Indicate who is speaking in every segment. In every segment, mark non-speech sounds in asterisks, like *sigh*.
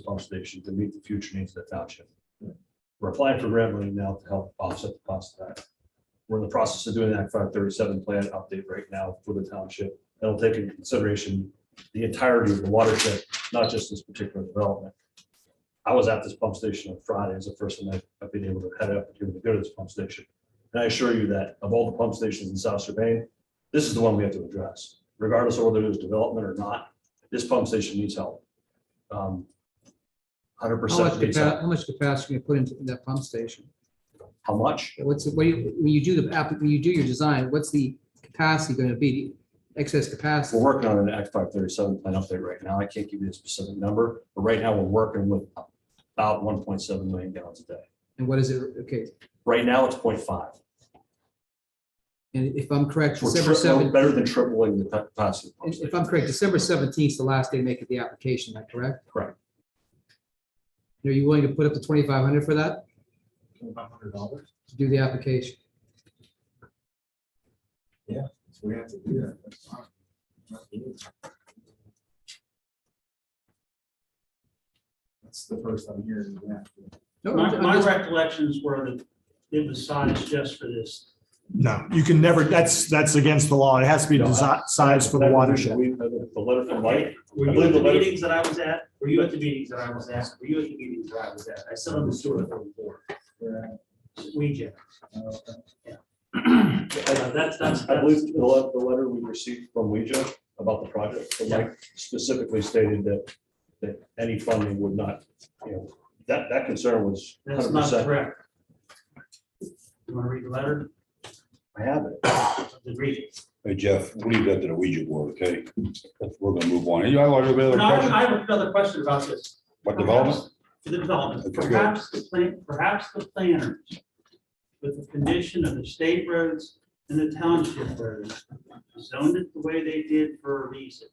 Speaker 1: pump station to meet the future needs of the township. We're applying for grant money now to help offset the cost of that. We're in the process of doing that five thirty-seven plan update right now for the township. That'll take into consideration the entirety of the watershed, not just this particular development. I was at this pump station on Friday, it's the first time I've- I've been able to head up to go to this pump station. And I assure you that of all the pump stations in South Surbane, this is the one we have to address, regardless of whether there's development or not. This pump station needs help. Hundred
Speaker 2: How much
Speaker 1: percent needs
Speaker 2: capacity,
Speaker 1: help.
Speaker 2: how much capacity you put into that pump station?
Speaker 1: How much?
Speaker 2: What's, it- what do you, when you do the, app- when you do your design, what's the capacity going to be? Excess
Speaker 1: We're
Speaker 2: capacity?
Speaker 1: working on an Act five thirty-seven plan update right now. I can't give you a specific number, but right now we're working with about one point seven million gallons a day.
Speaker 2: And what is it? Okay,
Speaker 1: Right now, it's 0.5.
Speaker 2: and if I'm correct,
Speaker 1: We're tri-
Speaker 2: December
Speaker 1: we're
Speaker 2: seventh,
Speaker 1: better than tripling the capacity. of the pump
Speaker 2: if
Speaker 1: station.
Speaker 2: I'm correct, December seventeenth is the last day making the application, am I correct?
Speaker 1: Correct.
Speaker 2: Are you willing to put up the twenty-five hundred for that,
Speaker 3: Twenty-five hundred dollars?
Speaker 2: to do the application?
Speaker 3: We have to do that. That's fine. Not you. That's the first I'm hearing that.
Speaker 2: No,
Speaker 4: My,
Speaker 2: I'm
Speaker 4: my
Speaker 2: just-
Speaker 4: recollections were that it was sized just for this.
Speaker 5: No, you can never, that's, that's against the law. It has to be
Speaker 1: No, I-
Speaker 5: desi- sized for the watershed.
Speaker 1: We- The letter from Mike,
Speaker 4: Were
Speaker 1: I
Speaker 4: you
Speaker 1: believe
Speaker 4: at the
Speaker 1: the letter-
Speaker 4: meetings that I was at? Were you at the meetings that I was at? Were you at the meetings that I was at? I still understood it from before. We, Jeff. That's, that's,
Speaker 1: I
Speaker 4: that's,
Speaker 1: believe the le- the letter we received from Ouija about the project, so Mike specifically stated that, that any funding would not, you know, that, that concern was
Speaker 4: that's
Speaker 1: hundred
Speaker 4: not
Speaker 1: percent.
Speaker 4: correct. You want to read the letter?
Speaker 1: I have it.
Speaker 4: Then read it.
Speaker 6: Hey Jeff, leave that to the Ouija board, okay? We're gonna move on. You have a bit of
Speaker 4: And
Speaker 6: a
Speaker 4: I
Speaker 6: question
Speaker 4: I have another question about this.
Speaker 6: about development?
Speaker 4: Perhaps- For the development,
Speaker 6: Okay, good.
Speaker 4: perhaps the plan, perhaps the planners, with the condition of the state roads and the township roads, zoned it the way they did for a reason.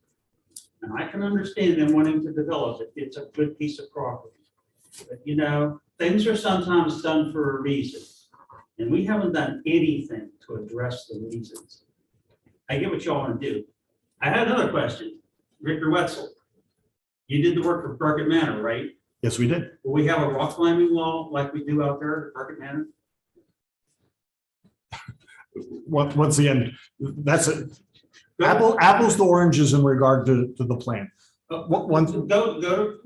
Speaker 4: And I can understand them wanting to develop it, it's a good piece of property. But you know, things are sometimes done for a reason, and we haven't done anything to address the reasons. I get what y'all want to do. I had another question, Ricker Wetzel. You did the work for Burkett Manor, right?
Speaker 5: Yes, we did.
Speaker 4: Will we have a rock climbing wall like we do out there at Market Manor?
Speaker 5: Once, once again, that's it. Apple, apples to oranges in regard to, to the plan. One, one-
Speaker 4: Uh, Go, go,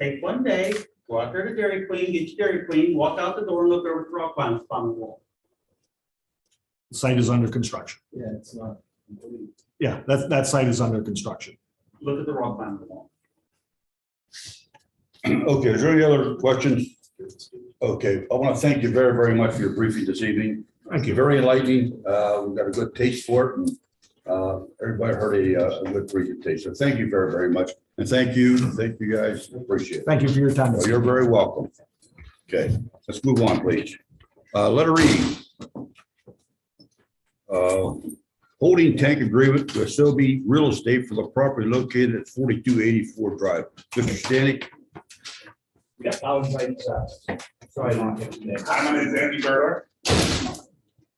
Speaker 4: take one day, go out there to Dairy Queen, get your Dairy Queen, walk out the door and look over at the rock climbing, climbing wall.
Speaker 5: site is under construction.
Speaker 3: Yeah, it's not complete.
Speaker 5: Yeah, that, that site is under construction.
Speaker 4: Look at the rock climbing wall.
Speaker 6: *clears throat* Okay, is there any other questions? Okay, I want to thank you very, very much for your briefing this evening.
Speaker 5: Thank you.
Speaker 6: Very enlightening. Uh, we've got a good taste for it and, uh, everybody heard a, uh, a good presentation. Thank you very, very much. And thank you, thank you guys. Appreciate it.
Speaker 5: Thank you for your time.
Speaker 6: Well, You're very welcome. Okay, let's move on, please. Uh, letter E. Uh, Holding tank agreement with Sobey Real Estate for the property located at forty-two eighty-four Drive. Mr. Stanek,
Speaker 7: Yeah, I was right. uh, Sorry. not here today. Hi, my name is Andy Burr.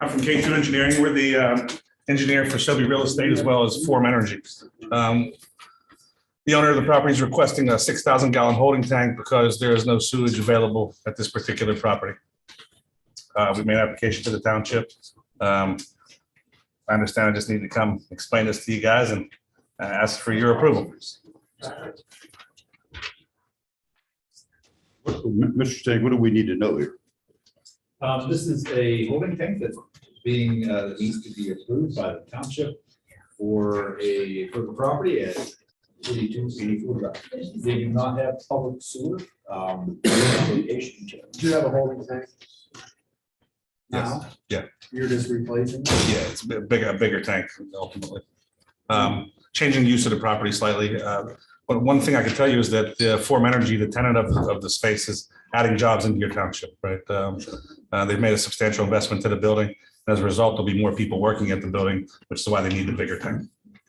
Speaker 7: I'm from K2 Engineering. We're the um, engineer for Shelby Real Estate as well as Form Energy. Um, The owner of the property is requesting a 6,000 gallon holding tank because there is no sewage available at this particular property. Uh, We made application to the township. Um, I understand I just need to come explain this to you guys and uh, ask for your approval.
Speaker 6: what- Mr. Stanek, what do we need to know here?
Speaker 8: Um, this is a holding tank that's being, uh, that needs to be approved by the township for a, for the property at forty-two eighty-four drive. They do not have public sewer, um, location.
Speaker 3: Do you have a holding tank? Now?
Speaker 7: yeah.
Speaker 3: You're just replacing?
Speaker 7: Yeah, it's a bigger, a bigger tank ultimately. Um, Changing use of the property slightly. uh, But one thing I can tell you is that the Form Energy, the tenant of, of the space is adding jobs into your township, right? Um, uh, They've made a substantial investment to the building. As a result, there'll be more people working at the building, which is why they need the bigger tank.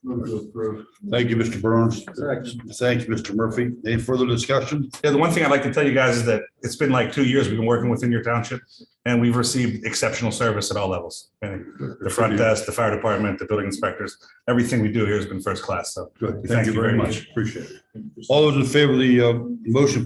Speaker 3: Move to approve.
Speaker 6: Thank you, Mr. Burns. Thanks, Mr. Murphy. Any further discussion?
Speaker 7: Yeah, the one thing I'd like to tell you guys is that it's been like two years we've been working within your township. And we've received exceptional service at all levels. And The front desk, the fire department, the building inspectors, everything we do here has been first class, so.
Speaker 6: Good.
Speaker 7: Thank
Speaker 6: Thank
Speaker 7: you
Speaker 6: you
Speaker 7: very
Speaker 6: very
Speaker 7: much.
Speaker 6: much. Appreciate it. All those in favor of the uh, motion,